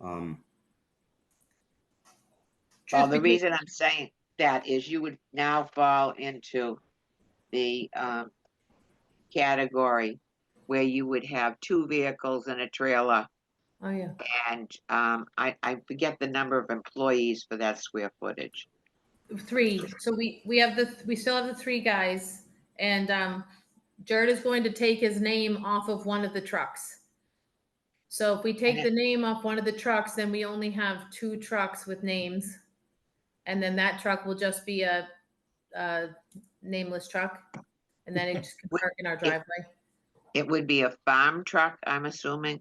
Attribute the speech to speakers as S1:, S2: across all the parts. S1: Um,
S2: Well,
S3: Just
S2: the
S3: because-
S2: reason I'm saying that is you would now fall into the um category where you would have two vehicles and a trailer
S3: Oh, yeah.
S2: and um I I forget the number of employees for that square footage.
S3: Three. So we, we have the, we still have the three guys. And um, Jared is going to take his name off of one of the trucks. So if we take the name off one of the trucks, then we only have two trucks with names. And then that truck will just be a, a nameless truck. And then it just can park in our driveway.
S2: It would be a farm truck, I'm assuming.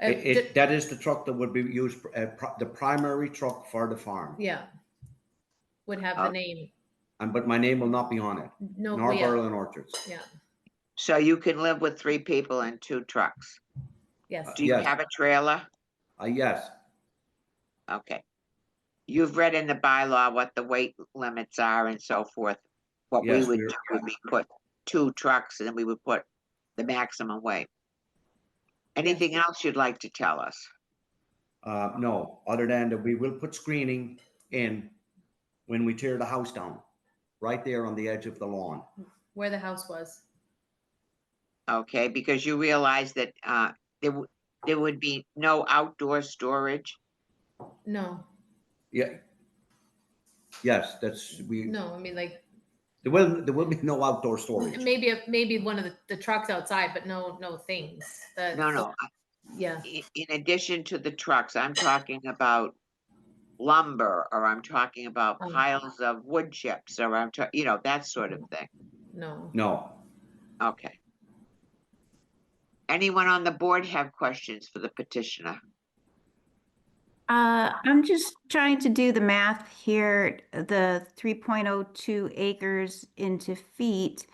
S3: Uh,
S1: it- it-
S3: ju-
S1: that is the truck that would be used, uh, pri- the primary truck for the farm.
S3: Yeah. Would have
S1: Uh,
S3: the name.
S1: And, but my name will not be on it,
S3: No, oh,
S1: nor
S3: yeah,
S1: Berlin Orchards.
S2: So you can live with three people and two trucks.
S3: yes.
S2: Do you
S1: Yes.
S2: have a trailer?
S1: Uh, yes,
S2: Okay. You've read in the bylaw what the weight limits are and so forth. What we
S1: Yes,
S2: would
S1: we're-
S2: do would be put two trucks and then we would put the maximum weight. Anything else you'd like to tell us?
S1: uh, no, other than that we will put screening in when we tear the house down, right there on the edge of the lawn.
S3: Where the house was.
S2: Okay, because you realize that uh there would there would be no outdoor storage.
S3: No,
S1: Yeah. Yes, that's, we,
S3: no, I mean like
S1: there will, there will be no outdoor storage.
S3: maybe, a- maybe one of the, the trucks outside, but no, no things. The-
S2: No, no.
S3: Yeah,
S2: I- In addition to the trucks, I'm talking about lumber or I'm talking about
S3: Oh.
S2: piles of wood chips or I'm, ta- you know, that sort of thing.
S3: no.
S1: No,
S2: Okay. Anyone on the board have questions for the petitioner?
S4: Uh, I'm just trying to do the math here, the 3.02 acres into feet,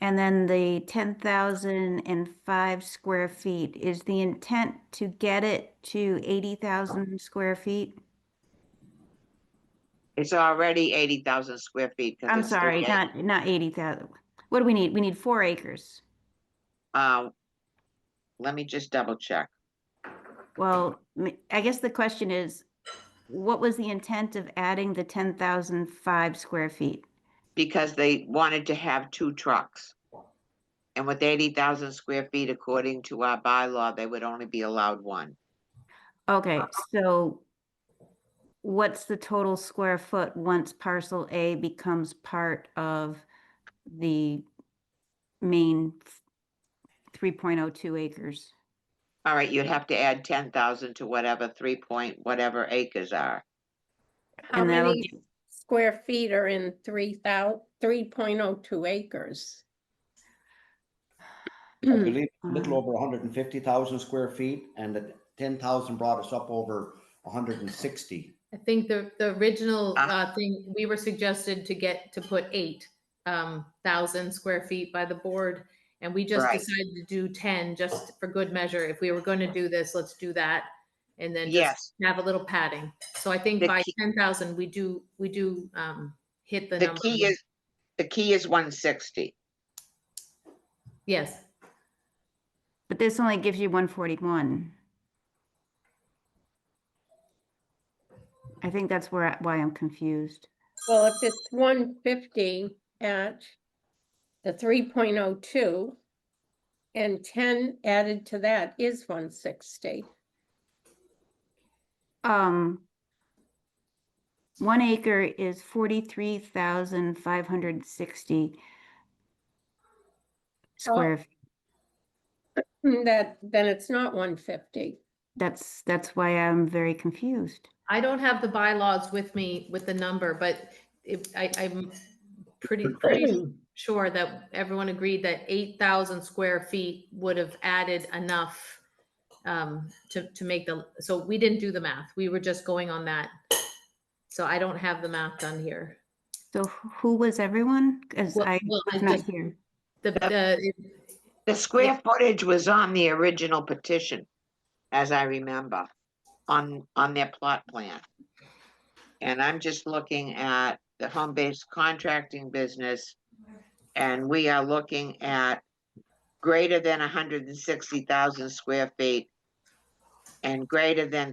S4: and then the 10,005 square feet. Is the intent to get it to 80,000 square feet?
S2: It's already eighty thousand square feet. 'cause
S4: I'm
S2: it's still
S4: sorry,
S2: eight-
S4: not, not 80,000. What do we need? We need four acres.
S2: Uh, let me just double check.
S4: Well, m- I guess the question is, what was the intent of adding the 10,005 square feet?
S2: Because they wanted to have two trucks. And with eighty thousand square feet, according to our bylaw, they would only be allowed one.
S5: Uh,
S4: Okay, so what's the total square foot once parcel A becomes part of the main f- 3.02 acres?
S2: All right, you'd have to add ten thousand to whatever three point whatever acres are.
S5: How
S4: And that'll
S5: many square feet are in three thou, three point oh two acres?
S1: I believe a little
S4: Uh.
S1: over hundred and fifty thousand square feet and the ten thousand brought us up over hundred and sixty.
S3: I think the, the original,
S2: Ah.
S3: uh, thing, we were suggested to get, to put eight, um, thousand square feet by the board. And we just
S2: Right.
S3: decided to do ten, just for good measure. If we were gonna do this, let's do that. And then
S2: Yes,
S3: just have a little padding. So I think
S2: The
S3: by
S2: key-
S3: ten thousand, we do, we do, um, hit the
S2: the
S3: number.
S2: key is, the key is one sixty.
S3: Yes,
S4: But this only gives you 141. I think that's where, I- why I'm confused.
S5: Well, if it's one fifty at the three point oh two and ten added to that is one sixty.
S4: Um, one acre is forty-three thousand five hundred sixty
S3: Oh.
S4: square. f-
S5: That, then it's not one fifty.
S4: That's, that's why I'm very confused.
S3: I don't have the bylaws with me with the number, but if, I, I'm pretty, pretty sure that everyone agreed that eight thousand square feet would have added enough um, to, to make the, so we didn't do the math. We were just going on that. So I don't have the math done here.
S4: So wh- who was everyone? Cause
S3: Well-
S4: I
S3: well, I
S4: was not
S3: just-
S4: here.
S3: The, the,
S2: The square footage was on the original petition, as I remember, on, on their plot plan. And I'm just looking at the home-based contracting business, and we are looking at greater than hundred and sixty thousand square feet and greater than